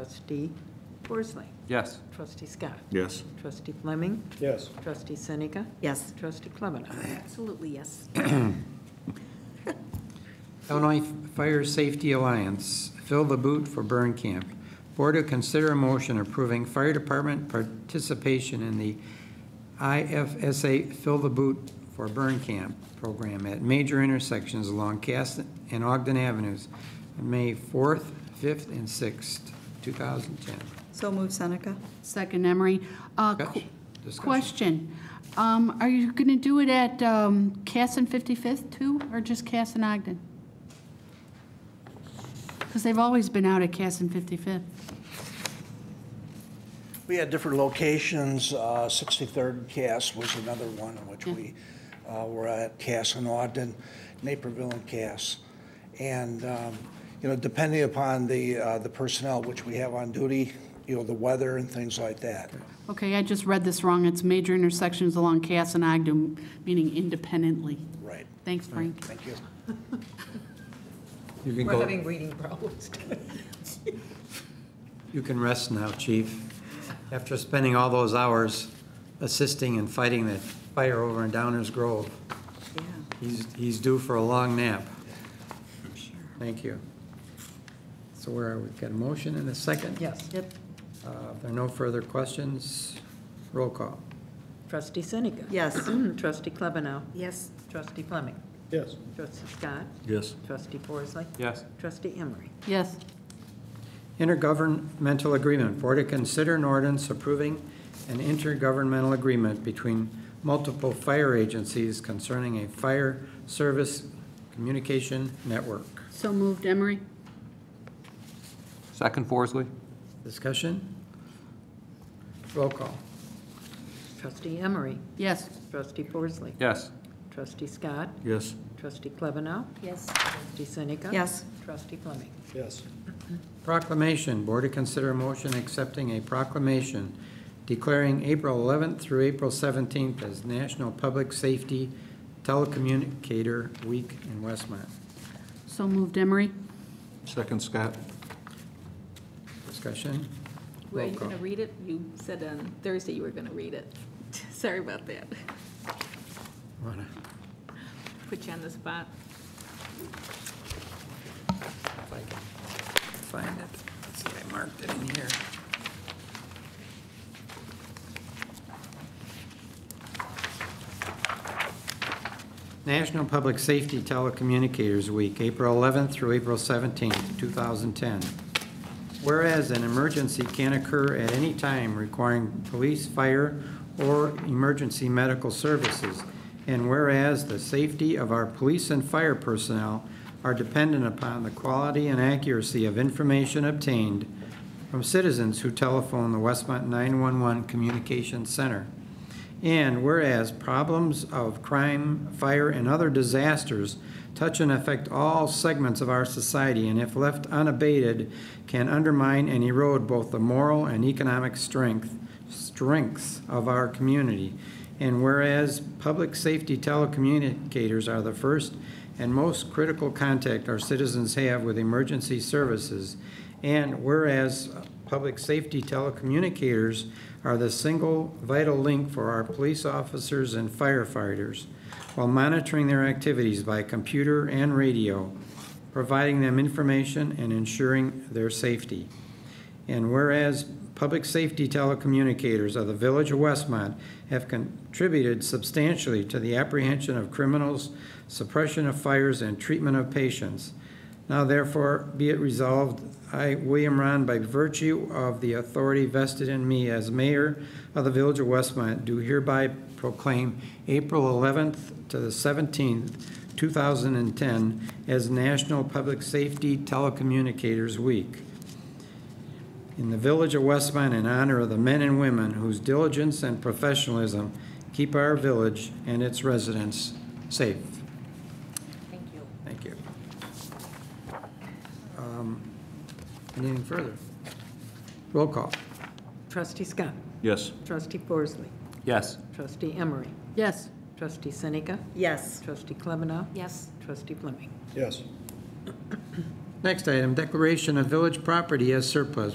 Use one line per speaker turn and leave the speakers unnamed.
Trustee Forsley.
Yes.
Trustee Scott.
Yes.
Trustee Fleming.
Yes.
Trustee Seneca.
Yes,
Trustee Klebanow.
absolutely, yes.
Illinois Fire Safety Alliance, Fill the Boot for Burn Camp. Board to consider a motion approving fire department participation in the IFSA Fill the Boot for Burn Camp program at major intersections along Cass and Ogden Avenues, on May 4th, 5th, and 6th, 2010.
So move Seneca?
Second Emery. Uh, qu-
Discussion. Discussion.
Question, Um, are you going to do it at um, Cass and 55th too, or just Cass and Ogden? Because they've always been out at Cass and 55th.
We had different locations. Uh, 63rd Cass was another one in which we uh, were at Cass and Ogden, Naperville and Cass. And, um, you know, depending upon the, uh, the personnel which we have on duty, you know, the weather and things like that.
Okay, I just read this wrong. It's major intersections along Cass and Ogden, meaning independently.
Right.
Thanks, Frank.
Thank you.
You can
We're
go,
having reading problems.
you can rest now, chief, after spending all those hours assisting and fighting that fire over in Downers Grove.
Yeah.
He's, he's due for a long nap. Thank you. So where are we? Got a motion and a second?
Yes.
Yep.
Uh, If there are no further questions, roll call.
Trustee Seneca.
Yes.
Trustee Klebanow.
Yes.
Trustee Fleming.
Yes.
Trustee Scott.
Yes.
Trustee Forsley.
Yes.
Trustee Emery.
Yes.
Intergovernmental agreement, Board to consider an ordinance approving an intergovernmental agreement between multiple fire agencies concerning a fire service communication network.
So moved, Emery?
Second Forsley?
Discussion? Roll call.
Trustee Emery.
Yes.
Trustee Forsley.
Yes.
Trustee Scott.
Yes.
Trustee Klebanow.
Yes.
Trustee Seneca.
Yes.
Trustee Fleming.
Yes.
Proclamation, Board to consider a motion accepting a proclamation declaring April 11th through April 17th as National Public Safety Telecommunicator Week in Westmont.
So moved, Emery?
Second, Scott?
Discussion?
Were
Roll
you
call.
going to read it? You said on Thursday you were going to read it. Sorry about that.
Wanna-
Put you on the spot.
if I can Find it. Let's see, I marked it in here. National Public Safety Telecommunicators Week, April 11th through April 17th, 2010. Whereas an emergency can occur at any time requiring police, fire, or emergency medical services, and whereas the safety of our police and fire personnel are dependent upon the quality and accuracy of information obtained from citizens who telephone the Westmont 911 Communications Center. And whereas problems of crime, fire, and other disasters touch and affect all segments of our society, and if left unabated, can undermine and erode both the moral and economic strength, strengths of our community. And whereas public safety telecommunicators are the first and most critical contact our citizens have with emergency services, and whereas public safety telecommunicators are the single vital link for our police officers and firefighters while monitoring their activities by computer and radio, providing them information and ensuring their safety. And whereas public safety telecommunicators of the Village of Westmont have contributed substantially to the apprehension of criminals, suppression of fires, and treatment of patients. Now therefore be it resolved, I, William Ron, by virtue of the authority vested in me as mayor of the Village of Westmont, do hereby proclaim April 11th to the 17th, 2010, as National Public Safety Telecommunicators Week in the Village of Westmont in honor of the men and women whose diligence and professionalism keep our village and its residents safe. Thank you. Thank you. Um, Anything further? Roll call.
Trustee Scott.
Yes.
Trustee Forsley.
Yes.
Trustee Emery.
Yes.
Trustee Seneca.
Yes.
Trustee Klebanow.
Yes.
Trustee Fleming.
Yes.
Next item, declaration of village property as surplus.